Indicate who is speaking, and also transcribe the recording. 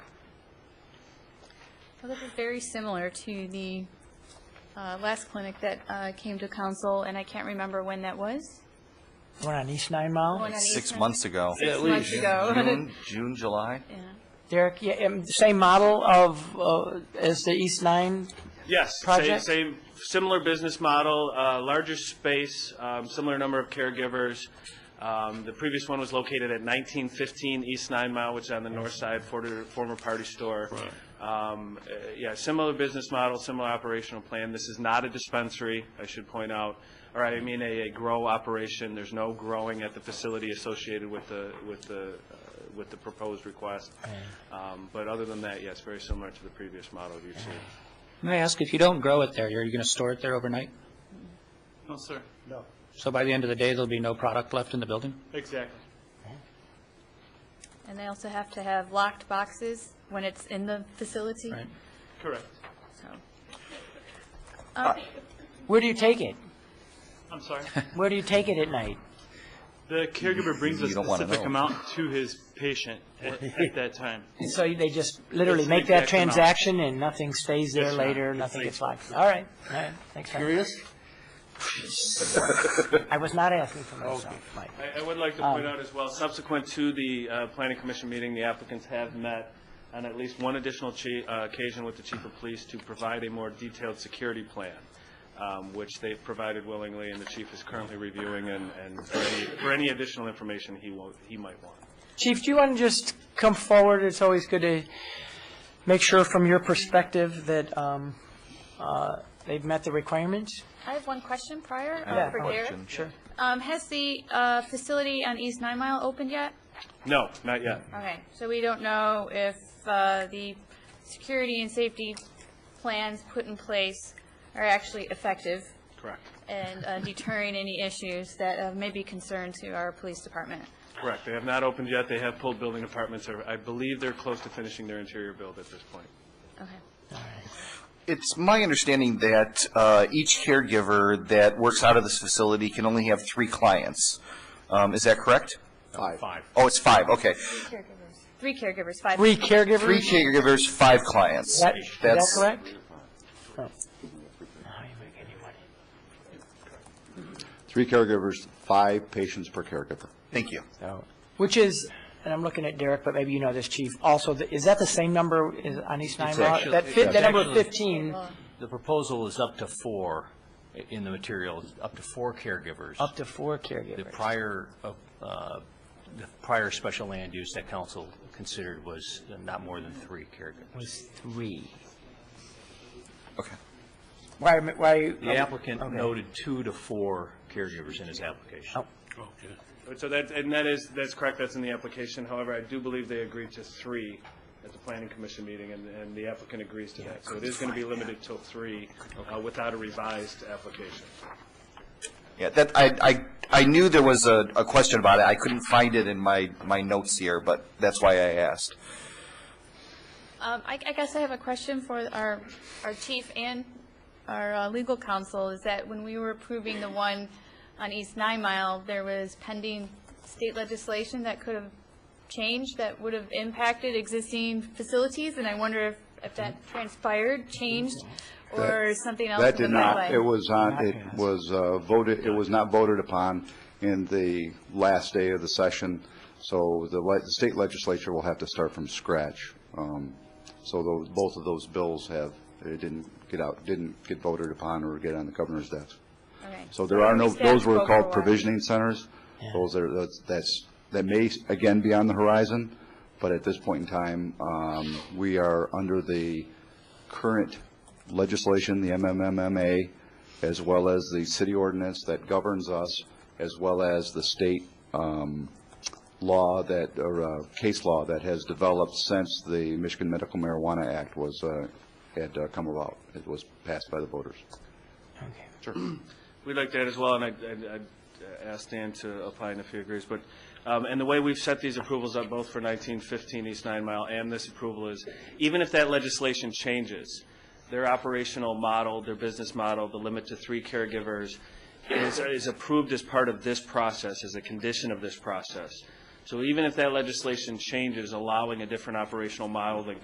Speaker 1: Well, This is very similar to the uh, last clinic that uh, came to council, and I can't remember when that was.
Speaker 2: One on East Nine Mile.
Speaker 1: One on
Speaker 3: Six
Speaker 1: Eastern?
Speaker 3: months ago.
Speaker 1: Six months
Speaker 2: Oh.
Speaker 1: ago.
Speaker 3: June, June, July?
Speaker 1: Yeah.
Speaker 2: Derek, yeah, um, same model of, uh, as the East Nine?
Speaker 4: Yes, same,
Speaker 2: project?
Speaker 4: same, similar business model, uh, larger space, um, similar number of caregivers. Um, The previous one was located at 1915 East Nine Mile, which is on the north side, former former party store. Um, uh, Yeah, similar business model, similar operational plan. This is not a dispensary, I should point out, or I mean a a grow operation. There's no growing at the facility associated with the, with the, uh, with the proposed request. Um, But other than that, yes, very similar to the previous model you've seen.
Speaker 5: May I ask, if you don't grow it there, are you going to store it there overnight?
Speaker 4: No, sir.
Speaker 5: So by the end of the day, there'll be no product left in the building?
Speaker 4: Exactly.
Speaker 1: And they also have to have locked boxes when it's in the facility.
Speaker 5: Right.
Speaker 4: Correct.
Speaker 1: So,
Speaker 2: Where do you take it?
Speaker 4: I'm sorry.
Speaker 2: Where do you take it at night?
Speaker 4: The caregiver brings a
Speaker 3: You don't wanna
Speaker 4: specific
Speaker 3: know.
Speaker 4: amount to his patient at at that time.
Speaker 2: So they just literally
Speaker 4: It's
Speaker 2: make
Speaker 4: the
Speaker 2: that
Speaker 4: exact amount.
Speaker 2: transaction and nothing stays there
Speaker 4: Yes, ma'am.
Speaker 2: later,
Speaker 4: It's
Speaker 2: nothing
Speaker 4: like-
Speaker 2: gets locked? All right, all right, thanks. Curious? I was not asking for myself, Mike.
Speaker 4: I, I would like to point out as well, subsequent to the uh, planning commission meeting, the applicants have met on at least one additional chi- uh, occasion with the chief of police to provide a more detailed security plan, um, which they've provided willingly, and the chief is currently reviewing, and, and for any, for any additional information he will, he might want.
Speaker 2: Chief, do you want to just come forward? It's always good to make sure from your perspective that um, uh, they've met the requirements?
Speaker 1: I have one question prior uh,
Speaker 2: Yeah,
Speaker 1: for Derek.
Speaker 3: Question.
Speaker 2: Sure.
Speaker 1: Um, Has the uh, facility on East Nine Mile opened yet?
Speaker 4: No, not yet.
Speaker 1: Okay, so we don't know if uh, the security and safety plans put in place are actually effective
Speaker 4: Correct.
Speaker 1: and uh, deterring any issues that uh, may be concerned to our police department.
Speaker 4: Correct. They have not opened yet. They have pulled building apartments. I believe they're close to finishing their interior build at this point.
Speaker 1: Okay.
Speaker 3: It's my understanding that uh, each caregiver that works out of this facility can only have three clients. Um, Is that correct?
Speaker 4: Five.
Speaker 3: Oh, it's five, okay.
Speaker 1: Three caregivers, five.
Speaker 2: Three caregivers?
Speaker 3: Three caregivers, five clients.
Speaker 2: That- Is that
Speaker 3: That's-
Speaker 2: correct? Oh.
Speaker 6: Three caregivers, five patients per caregiver.
Speaker 3: Thank you.
Speaker 2: So, Which is, and I'm looking at Derek, but maybe you know this, Chief, also, the- is that the same number is on East Nine Mile?
Speaker 7: actually-
Speaker 2: That fit, that number
Speaker 7: actually-
Speaker 2: 15,
Speaker 7: The proposal is up to four i- in the materials, up to four caregivers.
Speaker 2: up to four
Speaker 7: The
Speaker 2: caregivers.
Speaker 7: prior, uh, uh, the prior special land use that council considered was not more than three caregivers.
Speaker 2: Was three.
Speaker 3: Okay.
Speaker 2: Why, am I- why?
Speaker 7: The applicant
Speaker 2: okay.
Speaker 7: noted two to four caregivers in his application.
Speaker 2: Oh.
Speaker 4: So that, and that is, that's correct, that's in the application. However, I do believe they agreed to three at the planning commission meeting, and, and the applicant agrees to that. So it is going to be limited till three uh, without a revised application.
Speaker 3: Yeah, that, I, I, I knew there was a, a question about it. I couldn't find it in my, my notes here, but that's why I asked.
Speaker 1: Um, I, I guess I have a question for our, our chief and our uh, legal counsel, is that when we were approving the one on East Nine Mile, there was pending state legislation that could have changed, that would have impacted existing facilities, and I wonder if, if that transpired, changed, or something else
Speaker 6: That
Speaker 1: in the
Speaker 6: did not,
Speaker 1: pipeline.
Speaker 6: it was on, it was uh, voted, it was not voted upon in the last day of the session, so the le- the state legislature will have to start from scratch. Um, So tho- both of those bills have, it didn't get out, didn't get voted upon or get on the governor's desk.
Speaker 1: Okay.
Speaker 6: So there are no,
Speaker 1: We stand
Speaker 6: those were
Speaker 1: for a
Speaker 6: called
Speaker 1: while.
Speaker 6: provisioning centers. Those are, that's- that's, that may, again, be on the horizon, but at this point in time, um, we are under the current legislation, the MMMMA, as well as the city ordinance that governs us, as well as the state um, law that, or uh, case law that has developed since the Michigan Medical Marijuana Act was, uh, had uh, come about. It was passed by the voters.
Speaker 2: Okay.
Speaker 4: We'd like that as well, and I'd- I'd I'd, uh, ask Dan to opine if he agrees, but, um, and the way we've set these approvals up, both for 1915 East Nine Mile and this approval is, even if that legislation changes, their operational model, their business model, the limit to three caregivers is is approved as part of this process, as a condition of this process. So even if that legislation changes, allowing a different operational model than